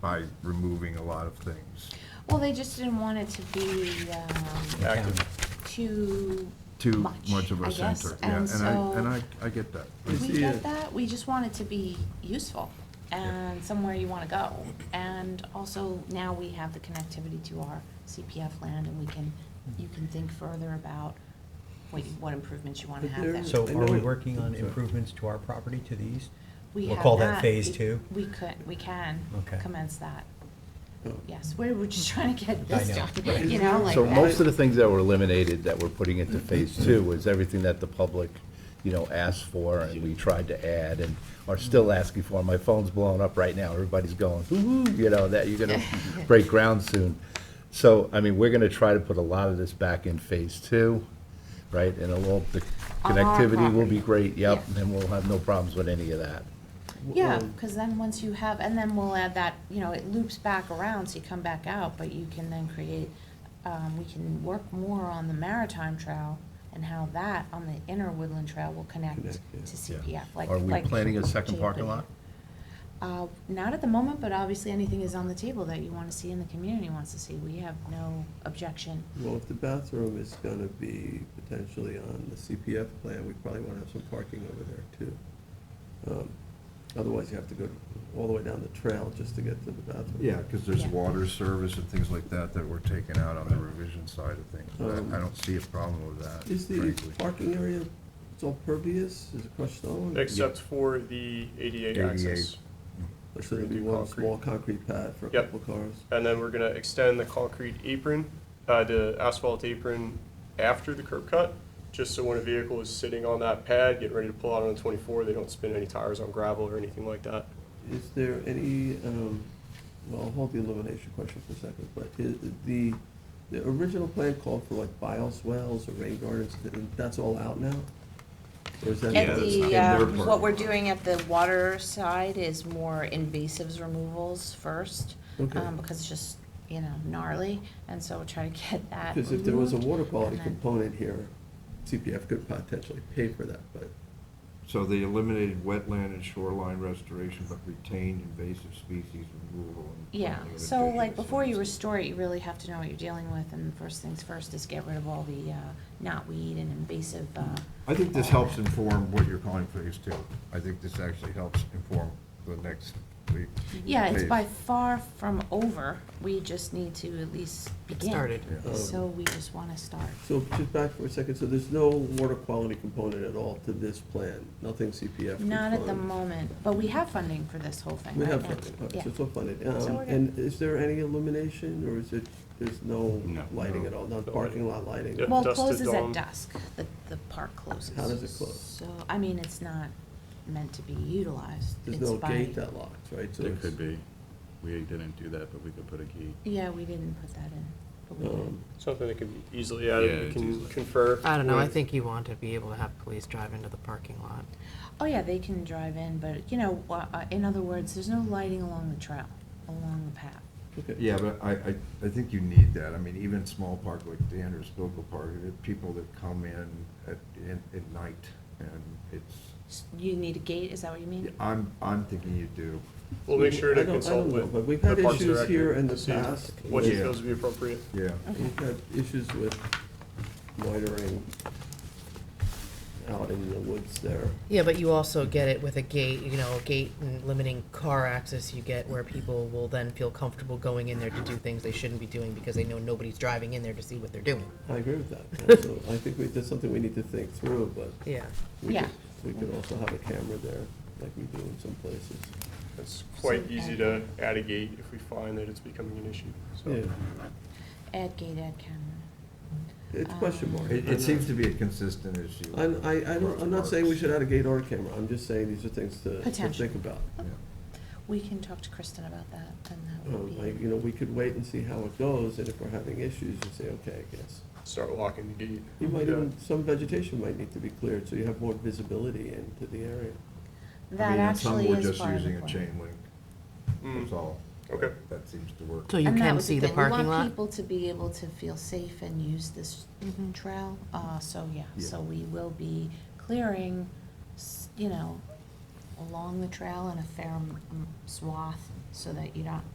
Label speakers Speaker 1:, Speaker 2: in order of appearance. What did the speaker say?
Speaker 1: by removing a lot of things.
Speaker 2: Well, they just didn't want it to be um,
Speaker 3: Active.
Speaker 2: too
Speaker 1: Too
Speaker 2: much,
Speaker 1: much of
Speaker 2: I
Speaker 1: a
Speaker 2: guess.
Speaker 1: center. Yeah,
Speaker 2: And so
Speaker 1: And I, and I, I get that.
Speaker 2: we
Speaker 3: It's- yeah.
Speaker 2: get that. We just want it to be useful and somewhere you want to go. And also now we have the connectivity to our CPF land, and we can you can think further about what you, what improvements you want to
Speaker 3: But
Speaker 2: have
Speaker 3: there-
Speaker 2: there.
Speaker 4: So
Speaker 3: I
Speaker 4: are we
Speaker 3: know-
Speaker 4: working on improvements to our property to the east?
Speaker 2: we
Speaker 4: We'll
Speaker 2: have
Speaker 4: call that phase
Speaker 2: it-
Speaker 4: two?
Speaker 2: We could we can
Speaker 4: Okay.
Speaker 2: commence that.
Speaker 3: Oh.
Speaker 2: Yes, we're, we're just trying to get
Speaker 4: I
Speaker 2: this
Speaker 4: know,
Speaker 2: done.
Speaker 4: right.
Speaker 2: You know, like
Speaker 5: So
Speaker 2: that.
Speaker 5: most of the things that were eliminated that we're putting into phase two was everything that the public, you know, asked for and we tried to add and are still asking for. My phone's blowing up right now. Everybody's going, ooh, you know, that you're gonna break ground soon. So, I mean, we're gonna try to put a lot of this back in phase two, right? And a little, the
Speaker 2: On our
Speaker 5: connectivity will
Speaker 2: property.
Speaker 5: be great, yep,
Speaker 2: Yeah.
Speaker 5: and we'll have no problems with any of that.
Speaker 2: Yeah,
Speaker 3: Um,
Speaker 2: because then once you have, and then we'll add that, you know, it loops back around, so you come back out, but you can then create, um, we can work more on the maritime trail and how that on the inner woodland trail will connect
Speaker 3: Connect, yeah.
Speaker 2: to CPF, like.
Speaker 5: Are we
Speaker 2: like
Speaker 5: planning a
Speaker 2: Jay
Speaker 5: second parking
Speaker 2: put
Speaker 5: lot?
Speaker 2: Uh, not at the moment, but obviously anything is on the table that you want to see and the community wants to see. We have no objection.
Speaker 3: Well, if the bathroom is gonna be potentially on the CPF plan, we probably wanna have some parking over there too. Um, Otherwise, you have to go all the way down the trail just to get to the bathroom.
Speaker 1: Yeah, because there's
Speaker 2: Yeah.
Speaker 1: water service and things like that that were taken out on the revision side of things.
Speaker 3: Um,
Speaker 1: I- I don't see a problem with that,
Speaker 3: Is the
Speaker 1: frankly.
Speaker 3: parking area, it's all pervious, is it crushed stone?
Speaker 6: Except for the ADA
Speaker 1: ADA.
Speaker 6: access.
Speaker 3: So there'll be one small concrete pad for a
Speaker 6: Yep.
Speaker 3: couple cars.
Speaker 6: And then we're gonna extend the concrete apron, uh, the asphalt apron after the curb cut, just so when a vehicle is sitting on that pad, getting ready to pull out on the twenty-four, they don't spin any tires on gravel or anything like that.
Speaker 3: Is there any, um, well, I'll hold the elimination question for a second, but i the, the original plan called for like bioswales or rain gardens, th- that's all out now? Or is that?
Speaker 2: At the, um,
Speaker 1: part.
Speaker 2: what we're doing at the water side is more invasives removals first,
Speaker 3: Okay.
Speaker 2: um, because it's just, you know, gnarly, and so we'll try to get that
Speaker 3: Because if there was a
Speaker 2: removed,
Speaker 3: water quality
Speaker 2: and then-
Speaker 3: component here, CPF could potentially pay for that, but
Speaker 7: So they eliminated wetland and shoreline restoration, but retained invasive species removal and.
Speaker 2: Yeah,
Speaker 7: planting of
Speaker 2: so like,
Speaker 7: indigenous
Speaker 2: before you
Speaker 7: species.
Speaker 2: restore it, you really have to know what you're dealing with, and first things first is get rid of all the, uh, knotweed and invasive, uh.
Speaker 1: I think this helps inform what you're calling phase two. I think this actually helps inform the next week.
Speaker 2: Yeah, it's
Speaker 1: phase.
Speaker 2: by far from over, we just need to at least begin.
Speaker 4: started.
Speaker 1: Yeah.
Speaker 2: So we just wanna start.
Speaker 3: um, So just back for a second, so there's no water quality component at all to this plan, nothing CPF. could
Speaker 2: Not at the
Speaker 3: fund.
Speaker 2: moment, but we have funding for this whole thing
Speaker 3: We
Speaker 2: right now.
Speaker 3: have funded, all right, so
Speaker 2: Yeah.
Speaker 3: it's all funded.
Speaker 2: So
Speaker 3: Um,
Speaker 2: we're good.
Speaker 3: And is there any illumination, or is it, there's no
Speaker 7: No.
Speaker 3: lighting at all, not
Speaker 6: No
Speaker 3: parking lot lighting?
Speaker 6: Yeah.
Speaker 2: Well, it
Speaker 6: dusk to
Speaker 2: closes at
Speaker 6: dawn.
Speaker 2: dusk, the, the park closes.
Speaker 3: How does it close?
Speaker 2: So, I mean, it's not meant to be utilized.
Speaker 3: There's
Speaker 2: It's
Speaker 3: no
Speaker 2: by-
Speaker 3: gate that locks, right? So
Speaker 8: There
Speaker 3: it's-
Speaker 8: could be. We didn't do that, but we could put a key.
Speaker 2: Yeah, we didn't put that in, but we did.
Speaker 3: um,
Speaker 6: Something that can be easily
Speaker 8: Yeah,
Speaker 6: added, we
Speaker 8: it's
Speaker 6: can
Speaker 8: easily-
Speaker 6: confer.
Speaker 9: I don't know, I
Speaker 6: with-
Speaker 9: think you want to be able to have police drive into the parking lot.
Speaker 2: Oh, yeah, they can drive in, but, you know, uh, uh, in other words, there's no lighting along the trail, along the path.
Speaker 3: Okay.
Speaker 1: Yeah, but I, I, I think you need that. I mean, even small park like Dan or Spokel Park, there are people that come in at, in- at night, and it's,
Speaker 2: S- You need a gate, is that what you mean?
Speaker 1: I'm, I'm thinking you do.
Speaker 6: We'll make sure
Speaker 3: I
Speaker 6: to
Speaker 3: don't- I
Speaker 6: consult
Speaker 3: don't know,
Speaker 6: with.
Speaker 3: But we've
Speaker 6: the
Speaker 3: had
Speaker 6: Parks
Speaker 3: issues
Speaker 6: Director
Speaker 3: here in the
Speaker 6: to see
Speaker 3: past.
Speaker 6: What he
Speaker 1: Yeah.
Speaker 6: feels would be appropriate.
Speaker 1: Yeah.
Speaker 2: Okay.
Speaker 3: We've had issues with loitering out in the woods there.
Speaker 9: Yeah, but you also get it with a gate, you know, a gate and limiting car access you get where people will then feel comfortable going in there to do things they shouldn't be doing because they know nobody's driving in there to see what they're doing.
Speaker 3: I agree with that. So I think we, that's something we need to think through, but
Speaker 9: Yeah.
Speaker 3: we
Speaker 2: Yeah.
Speaker 3: could, we could also have a camera there, like we do in some places.
Speaker 6: It's quite
Speaker 2: So
Speaker 6: easy to
Speaker 2: add-
Speaker 6: add a gate if we find that it's becoming an issue, so.
Speaker 3: Yeah.
Speaker 2: Add gate, add camera. Um,
Speaker 3: It's question mark.
Speaker 1: It,
Speaker 3: I'm
Speaker 1: it seems
Speaker 3: not-
Speaker 1: to be a consistent issue.
Speaker 3: I'm, I, I don't, I'm not saying we should add a gate or a camera, I'm just saying these are things to, to
Speaker 2: Potential.
Speaker 3: think about.
Speaker 1: Yeah.
Speaker 2: We can talk to Kristen about that, and that would
Speaker 3: Um, like,
Speaker 2: be,
Speaker 3: you know, we could wait and see how it goes, and if we're having issues, you say, okay, I guess.
Speaker 6: Start locking the gate.
Speaker 3: You might
Speaker 6: Yeah.
Speaker 3: even, some vegetation might need to be cleared, so you have more visibility into the area.
Speaker 1: I
Speaker 2: that
Speaker 1: mean, and some
Speaker 2: actually
Speaker 1: were
Speaker 2: is
Speaker 1: just
Speaker 2: part of the
Speaker 1: using a
Speaker 2: plan.
Speaker 1: chain link,
Speaker 6: Mm.
Speaker 1: that's all.
Speaker 6: Okay.
Speaker 1: That seems to work.
Speaker 9: So you
Speaker 2: And that
Speaker 9: can
Speaker 2: was
Speaker 9: see the
Speaker 2: thing.
Speaker 9: parking
Speaker 2: We want
Speaker 9: lot?
Speaker 2: people to be able to feel safe and use this
Speaker 9: Mm-hmm.
Speaker 2: trail, uh, so, yeah,
Speaker 1: Yeah.
Speaker 2: so we will be clearing, s- you know, along the trail in a fair m- m- swath, so that you're not